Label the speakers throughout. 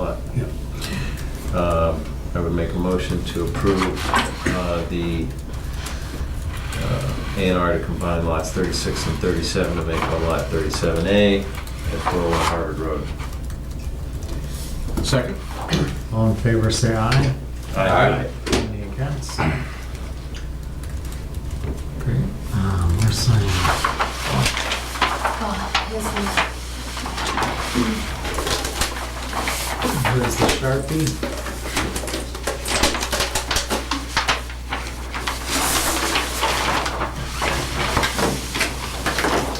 Speaker 1: up. Um, I would make a motion to approve uh, the uh, A and R to combine lots 36 and 37 to make one lot 37A at 401 Harvard Road.
Speaker 2: Second.
Speaker 3: All in favor, say aye.
Speaker 2: Aye.
Speaker 3: Any against? Great. Um, We're signing.
Speaker 4: Oh, here's the-
Speaker 3: Where's the Sharpie?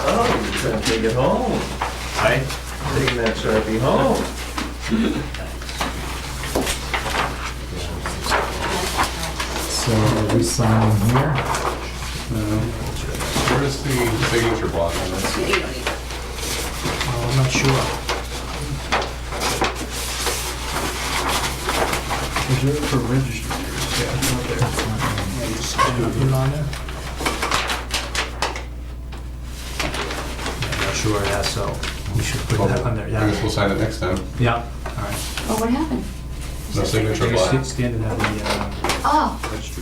Speaker 1: Oh, you're gonna take it home. I Taking that Sharpie home.
Speaker 3: So are we signing here? Uh,
Speaker 2: Where's the signature block on this?
Speaker 3: Oh, I'm not sure.
Speaker 5: Reserved for registered. Yeah, it's not there.
Speaker 3: It's not there.
Speaker 5: Yeah, you just put it on there.
Speaker 3: I'm not sure, yeah, so we should put that on there,
Speaker 2: I guess
Speaker 3: yeah.
Speaker 2: we'll sign it next time.
Speaker 3: Yeah, all right.
Speaker 4: Oh, what happened?
Speaker 2: No signature
Speaker 3: You sta-
Speaker 2: block.
Speaker 3: Standing at the, uh,
Speaker 4: Oh,
Speaker 3: register.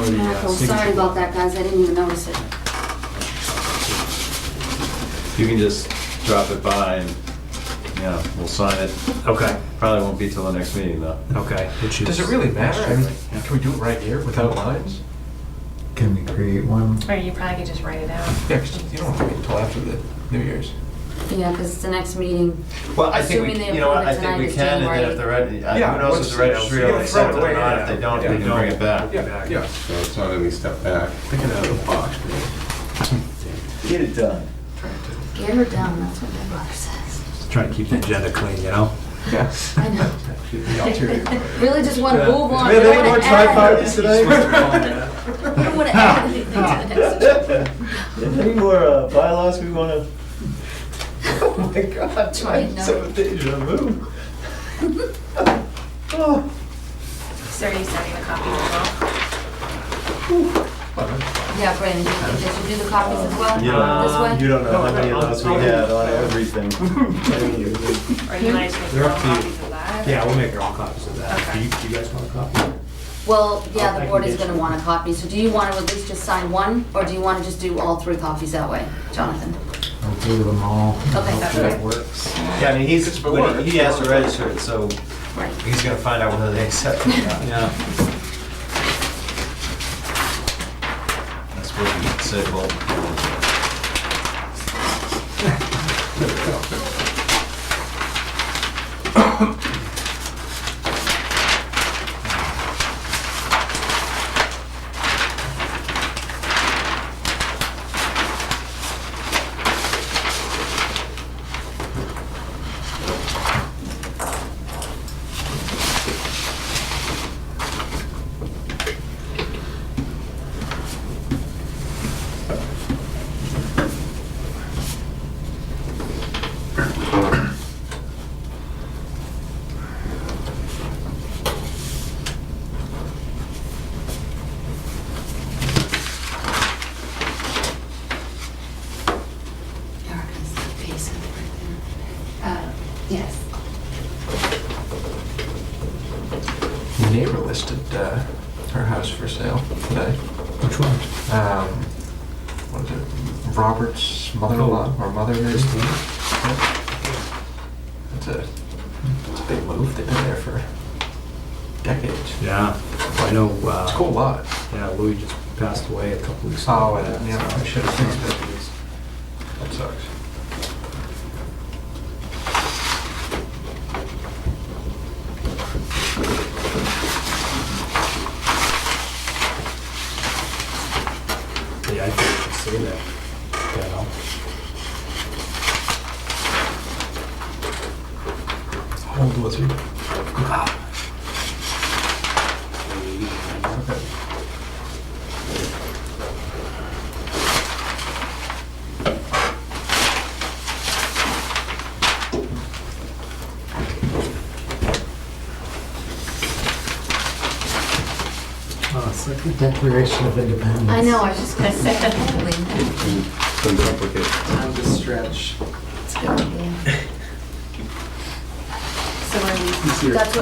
Speaker 3: or the, uh,
Speaker 4: miracle. Sorry
Speaker 3: signature.
Speaker 4: about that, guys. I didn't even notice it.
Speaker 1: You can just drop it by and, yeah, we'll sign it.
Speaker 3: Okay,
Speaker 1: Probably won't be till the next meeting though.
Speaker 3: okay. which
Speaker 6: Does it
Speaker 3: is-
Speaker 6: really matter? I mean, can we do it right here without lines?
Speaker 3: Can we create one?
Speaker 7: Or you probably could just write it out.
Speaker 6: Yeah, 'cause you don't have to wait until after the New Year's.
Speaker 4: Yeah, because it's the next meeting.
Speaker 1: Well, I think,
Speaker 4: Assuming
Speaker 1: we,
Speaker 4: they
Speaker 1: you know what, I
Speaker 4: approve it
Speaker 1: think we
Speaker 4: tonight,
Speaker 1: can, and
Speaker 4: it's
Speaker 1: then if they're ready,
Speaker 6: Yeah,
Speaker 1: I- who knows
Speaker 6: once-
Speaker 1: if the registry will
Speaker 6: yeah,
Speaker 1: accept it
Speaker 6: throw it
Speaker 1: or
Speaker 6: away,
Speaker 1: not, if
Speaker 6: yeah.
Speaker 1: they don't,
Speaker 6: Yeah.
Speaker 1: we can bring it back.
Speaker 6: Yeah, yeah.
Speaker 2: So it's not any step back.
Speaker 6: Thinking out of the box, man.
Speaker 1: Get it done.
Speaker 4: Get her down, that's what my mother says.
Speaker 3: Try to keep the agenda clean, you know?
Speaker 6: Yeah.
Speaker 4: I know.
Speaker 6: Should be ulterior.
Speaker 4: Really just want to move on.
Speaker 1: Really,
Speaker 4: Don't
Speaker 1: any more
Speaker 4: Oh, wanna add-
Speaker 1: tripods today?
Speaker 4: I don't want to add anything to the next one.
Speaker 1: Any more uh, bylaws we wanna? Oh my god,
Speaker 4: trying no. some
Speaker 1: deja vu.
Speaker 7: So are you sending a copy as well?
Speaker 4: Yeah, Brandon, did you- did you do the copies as well?
Speaker 1: You don't,
Speaker 4: This
Speaker 1: you
Speaker 4: way?
Speaker 1: don't know how many of those we had on everything.
Speaker 7: Or you might just make
Speaker 3: They're
Speaker 7: your own
Speaker 3: up to you.
Speaker 7: copies of that?
Speaker 3: Yeah, we'll make our own copies of that. Do
Speaker 7: Okay.
Speaker 3: you, do you guys want a copy?
Speaker 4: Well,
Speaker 3: I
Speaker 4: yeah, the
Speaker 3: can
Speaker 4: board is
Speaker 3: get
Speaker 4: going to
Speaker 3: you.
Speaker 4: want a copy, so do you want to at least just sign one? Or do you want to just do all three copies that way, Jonathan?
Speaker 3: I'll do them all.
Speaker 4: Okay,
Speaker 3: Hopefully
Speaker 4: that's
Speaker 3: that
Speaker 7: right.
Speaker 3: works.
Speaker 1: Yeah, I mean, he's,
Speaker 6: been
Speaker 1: when
Speaker 6: work.
Speaker 1: he he has to register it, so
Speaker 4: Right.
Speaker 1: he's gonna find out whether they accept it or not.
Speaker 3: Yeah.
Speaker 1: That's what he said, well.
Speaker 4: Erica's the piece of it right there. Yes.
Speaker 6: My neighbor listed uh, her house for sale today.
Speaker 3: Which one?
Speaker 6: Um, What is it? Robert's mother-in-law or mother is? It's a, it's a big move. They've been there for decades.
Speaker 3: Yeah, I know,
Speaker 6: It's a cool
Speaker 3: uh,
Speaker 6: lot.
Speaker 3: yeah, Louis just passed away a couple weeks ago.
Speaker 6: Oh, and, you know, I should have fixed it. That sucks.
Speaker 3: Yeah, I think you see that, you know?
Speaker 6: How old was he? Okay.
Speaker 3: Oh, it's like the Declaration of Independence.
Speaker 4: I know, I was just going to say. Holy,
Speaker 5: Time to stretch.
Speaker 4: It's a good idea. So
Speaker 7: where we
Speaker 4: That's what